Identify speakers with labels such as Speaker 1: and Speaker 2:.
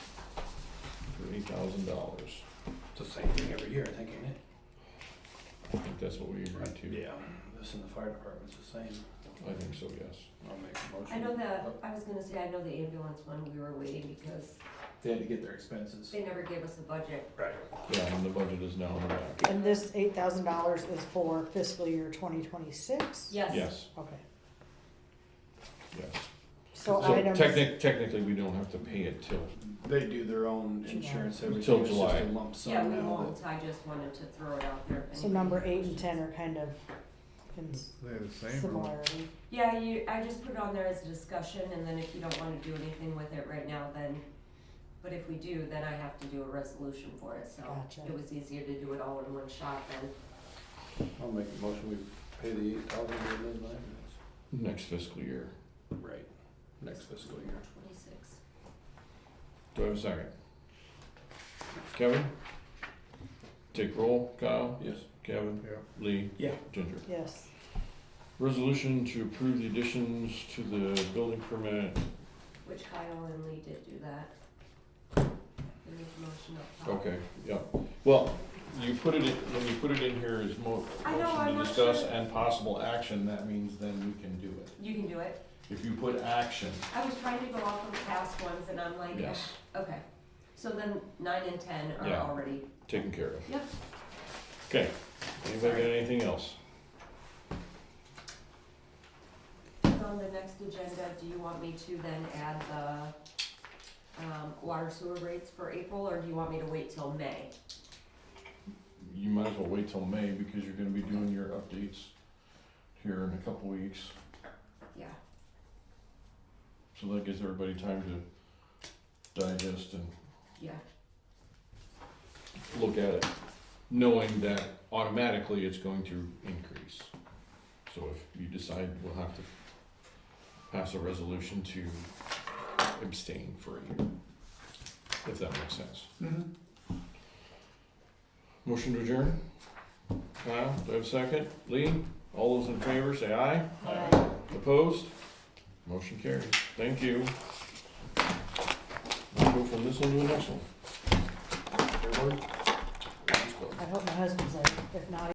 Speaker 1: fifty thousand dollars.
Speaker 2: It's the same thing every year, I think, isn't it?
Speaker 1: I think that's what we agreed to.
Speaker 2: Yeah, Mm-hmm. this and the fire department's the same.
Speaker 1: I think so, yes.
Speaker 2: I'll make a motion.
Speaker 3: I know that, I was gonna say, I know the ambulance one, we were waiting because
Speaker 2: They had to get their expenses.
Speaker 3: they never gave us a budget.
Speaker 2: Right.
Speaker 1: Yeah, and the budget is now in the back.
Speaker 4: And this eight thousand dollars is for fiscal year twenty twenty-six?
Speaker 3: Yes,
Speaker 1: Yes,
Speaker 4: Okay,
Speaker 1: yes.
Speaker 4: so
Speaker 1: So
Speaker 4: items,
Speaker 1: technic, technically, we don't have to pay it till,
Speaker 2: They do their own
Speaker 4: July.
Speaker 2: insurance every
Speaker 1: Until
Speaker 2: year, it's just
Speaker 1: July.
Speaker 2: a lump
Speaker 3: yeah,
Speaker 2: sum
Speaker 3: we
Speaker 2: now.
Speaker 3: won't, I just wanted to throw it out there. if
Speaker 4: so number
Speaker 3: anybody
Speaker 4: eight
Speaker 3: has
Speaker 4: and ten
Speaker 3: questions.
Speaker 4: are kind of in
Speaker 5: They're the same, or
Speaker 4: similarity.
Speaker 3: Yeah, you, I just put it on there as a discussion, and then if you don't wanna do anything with it right now, then, but if we do, then I have to do a resolution for it, so.
Speaker 4: Gotcha.
Speaker 3: It was easier to do it all in one shot then.
Speaker 2: I'll make a motion, we pay the eight thousand to Lynn Lyman.
Speaker 1: next fiscal year.
Speaker 2: Right, next fiscal year.
Speaker 3: Twenty-six.
Speaker 1: Do I have a second? Kevin? Take roll, Kyle,
Speaker 2: Yes.
Speaker 1: Kevin,
Speaker 5: yeah.
Speaker 1: Lee.
Speaker 2: Yeah.
Speaker 1: Ginger.
Speaker 4: Yes,
Speaker 1: Resolution to approve the additions to the building permit.
Speaker 3: Which Kyle and Lee did do that. They made the motion up top.
Speaker 1: Okay, yeah. Well, you put it, in when you put it in here as mo-
Speaker 3: I know,
Speaker 1: motion to
Speaker 3: I'm not
Speaker 1: discuss
Speaker 3: sure.
Speaker 1: and possible action, that means then we can do it.
Speaker 3: You can do it.
Speaker 1: If you put action,
Speaker 3: I was trying to go off of past ones, and I'm like,
Speaker 1: yes,
Speaker 3: okay. So then nine and ten are
Speaker 1: Yeah.
Speaker 3: already,
Speaker 1: taken care of.
Speaker 3: yep.
Speaker 1: Okay, anybody got anything else?
Speaker 3: On the next agenda, do you want me to then add the, um, water sewer rates for April, or do you want me to wait till May?
Speaker 1: You might as well wait till May because you're gonna be doing your updates here in a couple weeks.
Speaker 3: Yeah,
Speaker 1: So that gives everybody time to digest and
Speaker 3: yeah,
Speaker 1: look at it, knowing that automatically it's going to increase. So if you decide we'll have to pass a resolution to abstain for a year, if that makes sense.
Speaker 5: Mm-hmm.
Speaker 1: Motion to adjourn? Kyle, do I have a second? Lee, all those in favor, say aye.
Speaker 4: Aye.
Speaker 1: Opposed? Motion carries. Thank you. We'll go from this one to the next one. Everybody? Let's go.
Speaker 4: I hope my husband's there, if not,